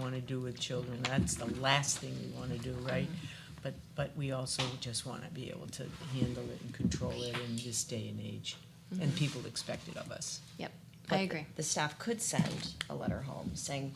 want to do with children. That's the last thing we want to do, Mm-hmm. right? But, but we also just want to be able to handle it and control it in this day and age. Mm-hmm. And people expect it of us. Yep, I But agree. The staff could send a letter home saying,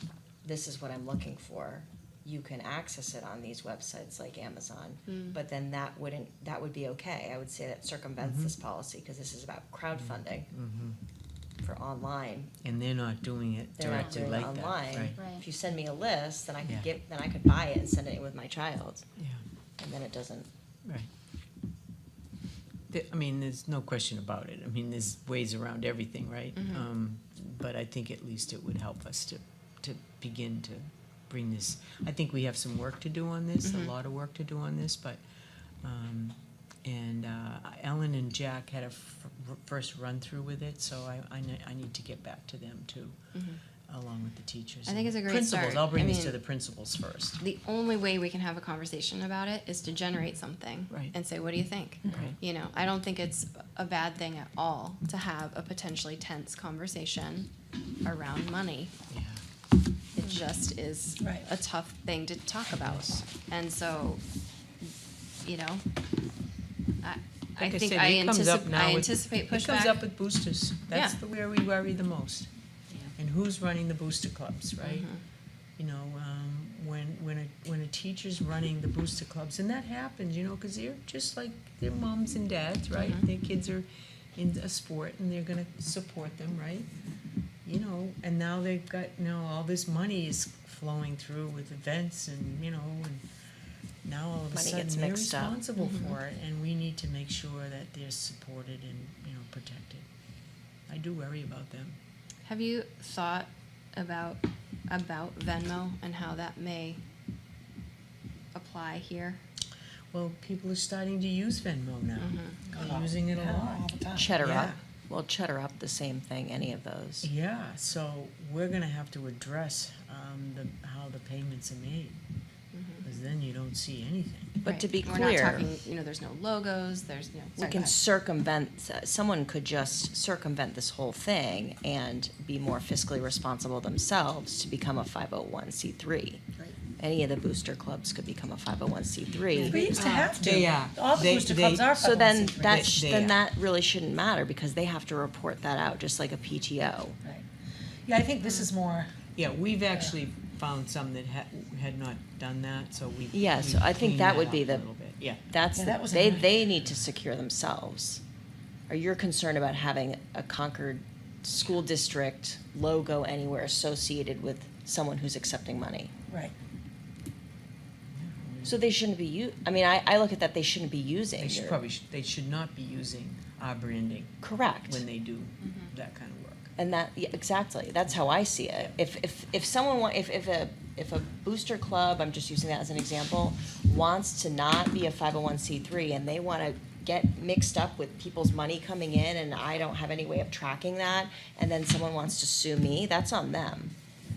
this is what I'm looking for. You can access it on these websites like Amazon. But then that wouldn't, that would be okay. I would say that circumvents Mm-hmm. this policy because this is about crowdfunding Mm-hmm. for online. And they're not doing it Mm-hmm. They're not directly doing like it that, right? online. Right. If you send me a list, then I Yeah. could get, then I could buy it and send it with my child. Yeah. And then it doesn't, Right. The- I mean, there's no question about it. I mean, there's ways around everything, right? Mm-hmm. Um, But I think at least it would help us to, to begin to bring this. I think we have some work to do on this, a Mm-hmm. lot of work to do on this, but, um, and uh, Ellen and Jack had a f- r- first run-through with it, so I, I ne- I need to get back to them too, along with the teachers. Mm-hmm. I think and it's a great Principals, start. I'll bring I these to mean- the principals first. The only way we can have a conversation about it is to generate something Right. Mm-hmm. and say, what do you think? Right. You know, I don't think it's a bad thing at all to have a potentially tense conversation around money. Yeah, It just is Right. a tough thing to talk about. Yes. And so, you know, I, I Like think said, I it comes up anticipate, now I with- anticipate It comes up pushback. with boosters. That's Yeah. the where we worry the most. And who's running the booster clubs, right? Mm-hmm. You know, um, when when a when a teacher's running the booster clubs, and that happens, you know, because they're just like their moms and dads, right? Mm-hmm. Their kids are in a sport, and they're going to support them, right? You know, and now they've got you know all this money is flowing through with events, and you know, and now all of a Money sudden gets they're mixed up. Mm-hmm. responsible for it, and we need to make sure that they're supported and you know protected. I do worry about them. Have you thought about, about Venmo and how that may apply here? Well, people are starting to use Venmo now. Mm-hmm. They're using it a lot. cheddar Ah, Yeah. up. Well, cheddar up, the same thing, any of those. Yeah, so we're gonna have to address um, the how the payments are made, Mm-hmm. because then you don't see anything. But Right. to be We're clear- not talking, you know, there's no logos, there's, you know, we sorry, go can ahead. circumvent, someone could just circumvent this whole thing and be more fiscally responsible themselves to become a 501c3. Right. Any of the booster clubs could become a 501c3. We used to have oh to. They are. All the They- booster they- clubs are So then 501c3. that, Yes, sh- they then are. that really shouldn't matter because they have to report that out, just like a PTO. Right. Yeah, I think this is more, Yeah, we've actually found some that had had not done that, so we. Yeah, so we I think cleaned that would up be a the- little bit. Yeah, That's, Yeah, the- that was a they, nice- they need to secure themselves. Or you're concerned about having a Concord school district logo anywhere associated with someone who's accepting money. right. So they shouldn't be u- I mean, I, I look at that, they shouldn't be using. they should your- probably, sh- they should not be using our branding Correct. Mm-hmm. when they do that kind of work. And that, yeah, exactly, that's how I see it. If, if, if someone, wa- if, if a, if a booster club, I'm just using that as an example, wants to not be a five oh one C three and they wanna get mixed up with people's money coming in and I don't have any way of tracking that, and then someone wants to sue me, that's on them.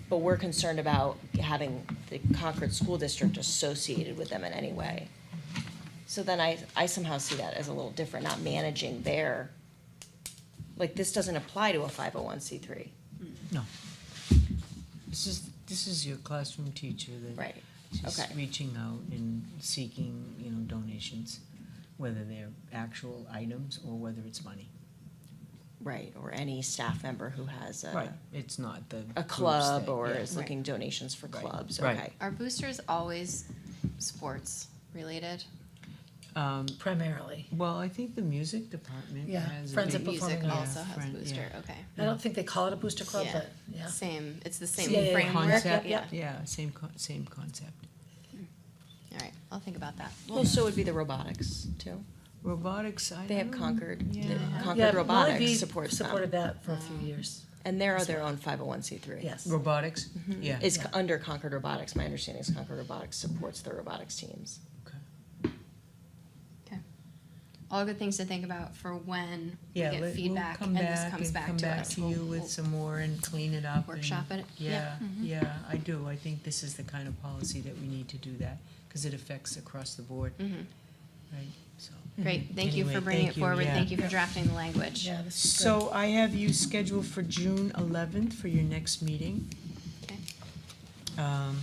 But we're concerned about having the Concord School District associated with them in any way. So then I, I somehow see that as a little different, not managing their, like, this doesn't apply to a five oh one C three. No. This is, this is your classroom teacher that. Right. Just Okay. reaching out and seeking, you know, donations, whether they're actual items or whether it's money. Right, or any staff member who has Right, a, it's not the. Uh, a groups club that- or yeah. is looking donations for Right. clubs, Right. okay. Are boosters always sports related? Um, Primarily. well, I think the music department Yeah, has. a Friends big- of Performing Music arts. also has Friend- yeah. booster, okay. I don't think they call it a booster club, Yeah. but yeah. Same, it's the same Yeah, yeah, yeah. framework, Concept, yeah. yeah, same, con- same concept. All right, I'll think about that. Well, so would be the robotics too. Mm-hmm. Robotics, I They have don't know. Concord, the Yeah. Yeah, Concord Molly Robotics B supports Supported them. that for a few years, And they're their own five oh one C three. yes. Robotics, yeah. Is c- under Concord Robotics, my understanding is Concord Robotics supports the robotics teams. Okay. All good things to think about for when we Yeah, let- get we'll feedback come and this back comes and back come to back us. to We'll- you we'll- with some more and clean it up. and- Workshop it, Yeah, yeah, yeah, I do. I think this is the kind of policy that we need to do that, because it affects across the board, Mhm. right, so. Great, thank you for Anyway, bringing thank it you, forward, yeah. thank you for drafting the language. Yeah, this is good. So I have you scheduled for June eleventh for your next meeting. Okay. Um,